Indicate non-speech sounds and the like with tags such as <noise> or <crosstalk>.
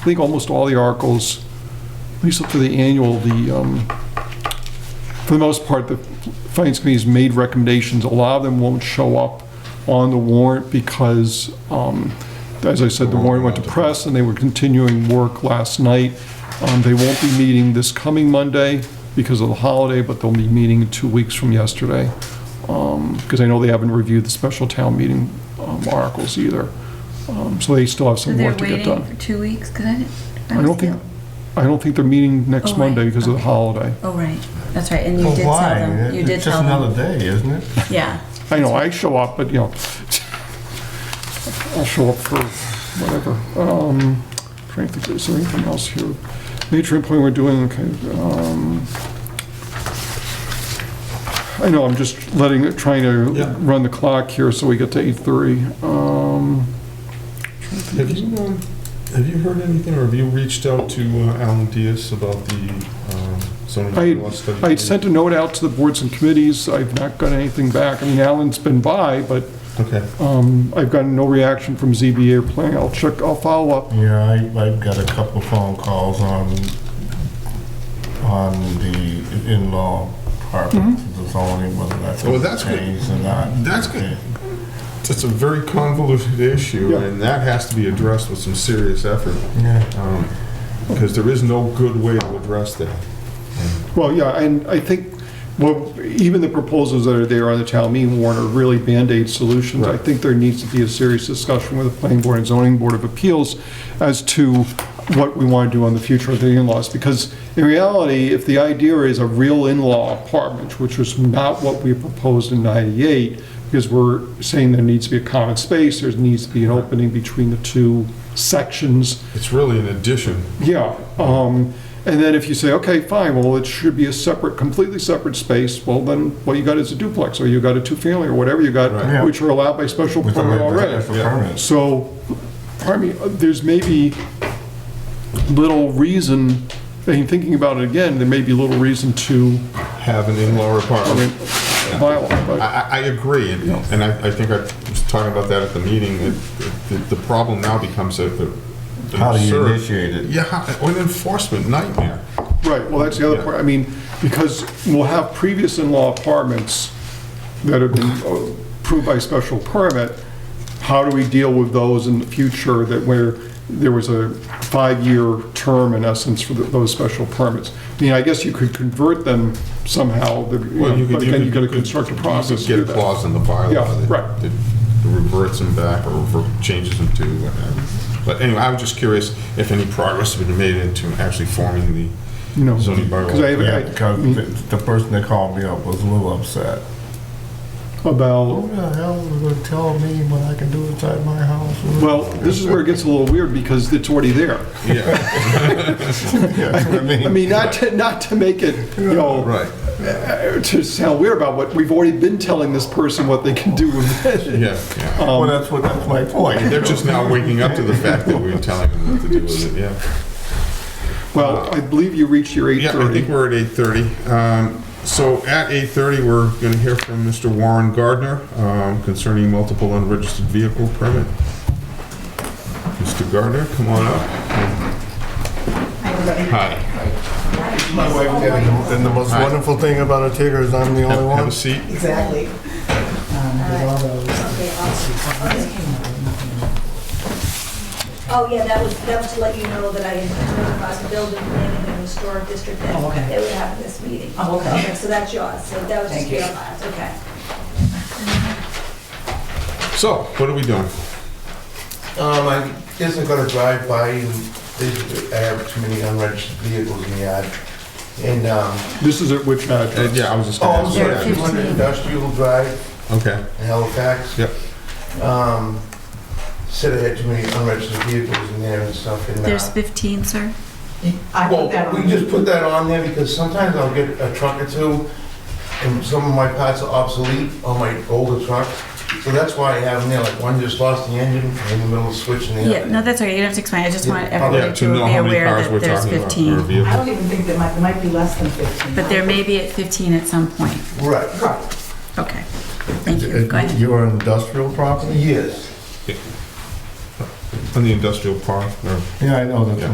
I think almost all the articles, at least up to the annual, the, um, for the most part, the Finance Committee's made recommendations. A lot of them won't show up on the warrant because, um, as I said, the warrant went to press and they were continuing work last night. Um, They won't be meeting this coming Monday because of the holiday, but they'll be meeting two weeks from yesterday. Um, Because I know they haven't reviewed the special town meeting um, articles either. Um, So they still have So some they're work to get waiting done. for two weeks? Because I didn't. I don't think, I don't think they're meeting Oh, next right, Monday because of the okay. holiday. Oh, right. That's right. And you Well, did tell why? them. You did It's just tell them. another day, isn't it? <laughs> Yeah. I know, I show up, but, you know, I'll show up for whatever. Um, Trying to think, is there anything else here? Nature and point we're doing, okay. um, I know, I'm just letting, it- trying to Yeah. run the clock here so we get to 8:30. Um, Have you, um, have you heard anything, or have you reached out to uh, Alan Diaz about the um, zoning I- bylaw study? I had sent a note out to the boards and committees, I've not got anything back. I mean, Alan's been by, but Okay, um, I've gotten no reaction from ZBA or planning. I'll check, I'll follow up. Yeah, I, I've got a couple phone calls on, on the in-law apartment, Mm-hmm. the zoning, whether that's Well, that's good. changed or not. That's good. it's a very convoluted issue, Yeah. and that has to be addressed with some serious effort, Yeah. because there is no good way to address that. Well, yeah, and I think, well, even the proposals that are there on the town meeting warrant are really Band-Aid solutions. I Right. think there needs to be a serious discussion with the planning board and zoning board of appeals as to what we want to do on the future of the in-laws. Because in reality, if the idea is a real in-law apartment, which was not what we proposed in 98, because we're saying there needs to be a common space, there needs to be an opening between the two sections. It's really an addition. Yeah, um, and then if you say, okay, fine, well, it should be a separate, completely separate space, well, then what you got is a duplex, or you got a two-family, or whatever you got, Right. Yeah. which are allowed by special With the permit already. special permit. So, pardon me, uh, there's maybe little reason, in thinking about it again, there may be little reason to, Have an in-law I mean, apartment. bylaw, I, but, I- I agree, and and I, I think I was talking about that at the meeting, it- the, the problem now becomes a. a- How do you absurd- initiate it? Yeah, how- an enforcement nightmare. right, well, that's the other Yeah. part, I mean, because we'll have previous in-law apartments that have been uh, approved by special permit, how do we deal with those in the future that where there was a five-year term in essence for the- those special permits? I mean, I guess you could convert them somehow, the- you Well, know, you could- but you again, could- you gotta you could- construct a process to Get do a that. clause in the bylaw. Yeah, that- right. That reverts them back or rever- changes them to whatever. But anyway, I was just curious if any progress has been made into actually forming No. the zoning bylaw. 'Cause I have- Yeah, because the, the person that called me up was a little upset. About, Who the hell is gonna tell me what I can do inside my house? well, this is where it gets a little weird because it's already <laughs> there. Yeah, Yeah, I I mean, mean, not to, not to make it, you know, right, <laughs> to sound weird about what, we've already been telling this person what they can do with it. yeah, yeah. Um, well, that's what, that's my point. They're just now waking up to the fact that we're telling them what to do with it, yeah. Well, I believe you reached your Yeah, I think 8:30. we're at 8:30. Um, So at 8:30, we're going to hear from Mr. Warren Gardner um, concerning multiple unregistered vehicle permit. Mr. Gardner, come on up. Hi. My wife did, it, and the most Hi. wonderful thing about Antigua is I'm the only Have one. a seat. Exactly. Um, with all those. Oh, yeah, that was, that was to let you know that I had notified the building planning and historic district Oh, that okay. they would have this meeting. Oh, okay. So that's yours, so that was just Thank you. your last, okay. So, what are we doing? Um, I isn't gonna drive by and they- I have too many unregistered vehicles in the yard. And, um, This is at which Uh, address? Yeah, I was just oh, going I'm to sorry, ask. you two that. hundred industrial drive, Okay, in Halifax. Yep. Um, said I had too many unregistered vehicles in there and stuff and, uh. There's 15, sir. I put that Well, on. we just put that on there because sometimes I'll get a truck or two, and some of my parts are obsolete on my older trucks. So that's why I have them there, like one just lost the engine in the middle of switching the Yeah, other. no, that's all right. You don't have to explain. I just Yeah, want yeah, everybody to to know be how many aware cars we're that there's talking about. or 15. I vehicles. don't even think that might, there might be less than 15. But there may be at 15 at some point. Right, Right. Okay. Thank you. Go ahead. You're an Uh, industrial property? yes. On the industrial park, or Yeah, I know, that's Yeah.